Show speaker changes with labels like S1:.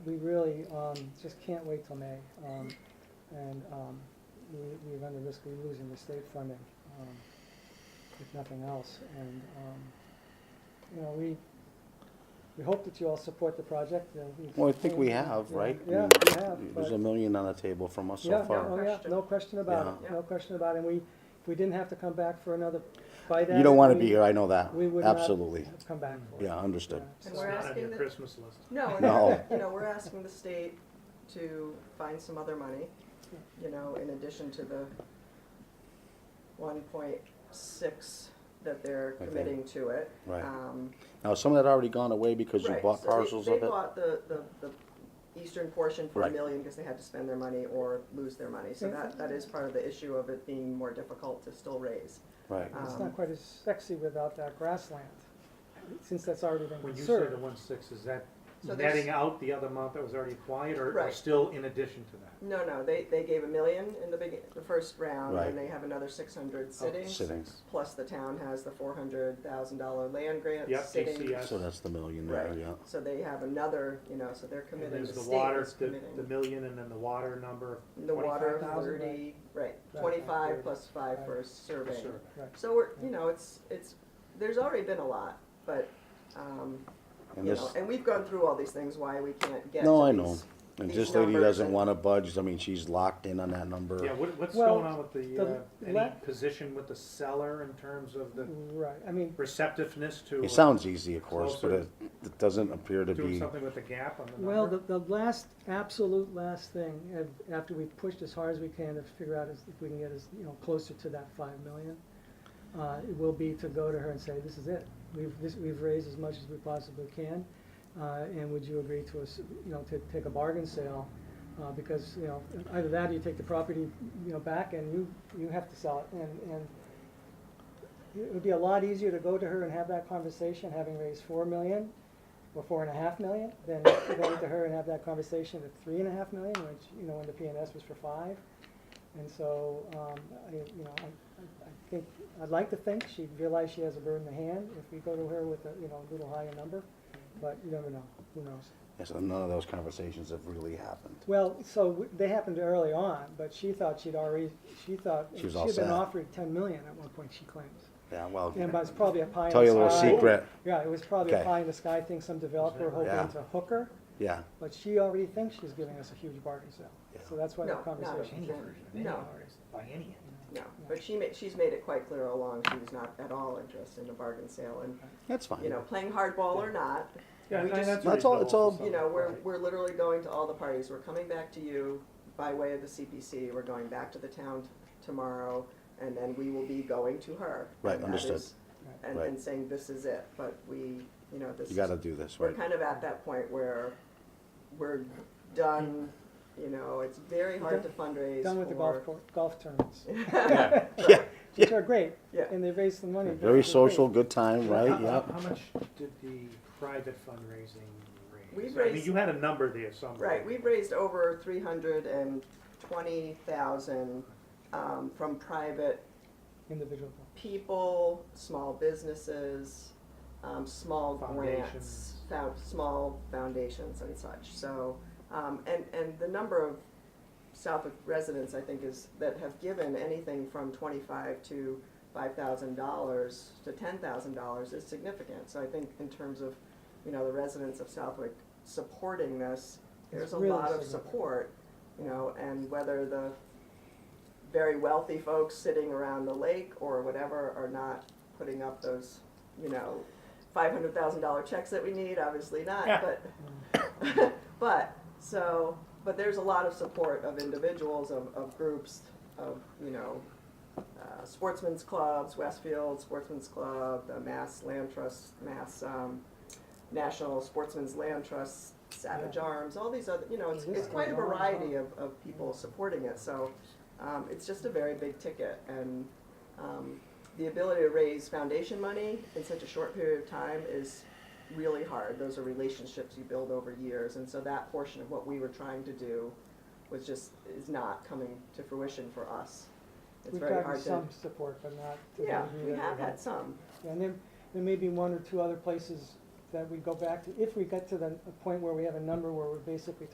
S1: we really, um, just can't wait till May. Um, and, um, we, we run the risk of losing the state funding, um, if nothing else. And, um, you know, we, we hope that you all support the project. uh, we've-
S2: Well, I think we have,
S1: Yeah,
S2: right?
S1: Yeah,
S2: I
S1: we
S2: mean,
S1: have,
S2: There's a
S1: but-
S2: million on the table from us
S1: Yeah,
S2: so
S1: oh,
S2: far.
S1: yeah, no question about
S2: Yeah.
S1: it, no question about it. And we, if we didn't have to come back for another fight at it.
S2: You don't want to
S1: we-
S2: be here, I know that.
S1: we would not-
S2: Absolutely.
S1: Come back for it.
S2: Yeah, understood.
S1: Yeah,
S3: And
S1: so-
S3: we're
S4: Not on
S3: asking
S4: your
S3: the-
S4: Christmas list.
S2: No.
S3: No, no, you know, we're asking the state to find some other money, you know, in addition to the one point six that they're
S2: Okay.
S3: committing to it.
S2: Right.
S3: Um,
S2: Now, some of that already gone away because you
S3: right,
S2: bought
S3: so they-
S2: parcels of
S3: They
S2: it?
S3: bought the, the, the eastern portion for a
S2: Right.
S3: million because they had to spend their money or lose their money. So that, that is part of the issue of it being more difficult to still raise.
S2: Right.
S1: It's
S3: Um,
S1: not quite as sexy without that grassland, since that's already been
S4: When you say the
S1: conserved.
S4: one six, is that
S3: So there's-
S4: netting out the other amount that was already acquired or- or
S3: Right.
S4: still in addition to that?
S3: No, no, they, they gave a million in the big, the first round
S2: Right.
S3: and they have another six hundred sitting.
S2: Sitting.
S3: plus the town has the four hundred thousand dollar land grant
S4: Yep,
S3: sitting.
S4: DCS.
S2: So that's the million there,
S3: Right,
S2: yeah.
S3: so they have another, you know, so they're
S4: And
S3: committing,
S4: there's
S3: the
S4: the
S3: state
S4: water,
S3: is
S4: the, the
S3: committing.
S4: million and then the water number,
S3: The water
S1: 25,000,
S3: thirty, right,
S1: Right,
S3: twenty-five
S1: 30,
S3: plus five
S1: right.
S3: for
S4: the
S3: surveying.
S4: survey.
S1: Right.
S3: So we're, you know, it's, it's, there's already been a lot, but, um, you
S2: And this,
S3: know, and we've gone through all these things, why we can't get to these.
S2: No, I know. and
S3: these
S2: this lady
S3: numbers
S2: doesn't
S3: and-
S2: want to budge. I mean, she's locked in on that
S4: Yeah,
S2: number.
S4: what, what's
S1: Well,
S4: going on with the,
S1: the
S4: uh, any
S1: la-
S4: position with the seller in terms of the
S1: Right, I mean,
S4: receptiveness to? uh,
S2: It sounds easy, of course, but it
S4: Closer.
S2: it doesn't appear to
S4: Doing
S2: be.
S4: something with the gap on the number?
S1: well, the, the last, absolute last thing, af- after we've pushed as hard as we can to figure out is- if we can get as, you know, closer to that five million, uh, it will be to go to her and say, this is it. We've, this, we've raised as much as we possibly can, uh, and would you agree to us, you know, to take a bargain sale? Uh, because, you know, either that or you take the property, you know, back and you, you have to sell it, and, and it would be a lot easier to go to her and have that conversation, having raised four million or four and a half million, than going to her and have that conversation at three and a half million, which, you know, when the P and S was for five. And so, um, I, you know, I, I- I think, I'd like to think she'd realize she has a bird in the hand if we go to her with a, you know, a little higher number, but you never know, who knows?
S2: Yes, and none of those conversations have really happened.
S1: Well, so w- they happened early on, but she thought she'd already, she thought,
S2: She
S1: she
S2: was
S1: had
S2: all
S1: been
S2: set.
S1: offered ten million at one point, she claims.
S2: Yeah, well,
S1: And but it's probably a pie in the sky.
S2: tell you a little secret.
S1: Yeah, it was probably a
S2: Okay.
S1: pie in the sky thing, some developer
S2: Yeah.
S1: hoping to hook her,
S2: Yeah,
S1: but she already thinks she's giving us a huge bargain sale. So that's why
S3: No,
S1: the
S3: not
S1: conversation.
S3: any version, any No.
S4: By any end.
S3: No, but she ma, she's made it quite clear all along, she's not at all interested in a bargain sale, and,
S2: that's fine.
S3: you know, playing hardball or not,
S4: Yeah,
S3: We
S4: and
S3: just-
S4: that's
S2: That's all- it's
S4: reasonable
S2: all-
S4: for some-
S3: You know, we're,
S4: right.
S3: we're literally going to all the parties, we're coming back to you by way of the CPC, we're going back to the town t- tomorrow, and then we will be going to her.
S2: Right,
S3: And that
S2: understood.
S3: is- And,
S2: Right.
S3: and saying, this is it, but we, you know, this
S2: You
S3: is.
S2: gotta do this,
S3: We're
S2: right?
S3: kind of at that point where we're done, you know, it's very hard to fundraise
S1: Done with the golf
S3: for-
S1: cour golf tournaments,
S2: Yeah, yeah,
S1: which are great,
S3: Yeah.
S1: and they raise some money. but
S2: very
S1: it's great.
S2: social, good time,
S4: How-
S2: right?
S4: how-
S2: Yeah.
S4: How much did the private fundraising raise?
S3: We've
S4: I mean,
S3: raised-
S4: you had a number there somewhere.
S3: Right, we've raised over three hundred and twenty thousand, um, from private
S1: Individual. golf.
S3: people, small businesses, um, small grants,
S4: Foundations.
S3: fou- small foundations and such. So, um, and, and the number of Southwick residents, I think, is, that have given anything from twenty-five to five thousand dollars to ten thousand dollars is significant. So I think in terms of, you know, the residents of Southwick supporting this, there's
S1: It's
S3: a
S1: really
S3: lot of
S1: significant.
S3: support, you know, and whether the very wealthy folks sitting around the lake or whatever are not putting up those, you know, five hundred thousand dollar checks that we need, obviously not, but, but, so, but there's a lot of support of individuals, of, of groups, of, you know, uh, sportsmen's clubs, Westfield Sportsman's Club, the Mass Land Trust, Mass, um, National Sportsman's Land Trust, Savage
S1: Yeah.
S3: Arms, all these other, you know, it's,
S1: This
S3: it's
S1: is
S3: quite a
S1: going on, huh? Mm-hmm.
S3: variety of, of people supporting it, so, um, it's just a very big ticket, and, um, the ability to raise foundation money in such a short period of time is really hard. Those are relationships you build over years, and so that portion of what we were trying to do was just, is not coming to fruition for us. It's
S1: We've
S3: very
S1: gotten
S3: hard to.
S1: some support, but not to the
S3: Yeah,
S1: degree
S3: we
S1: that
S3: have
S1: we want.
S3: had some,
S1: And there, there may be one or two other places that we go back to, if we get to the point where we have a number where we're basically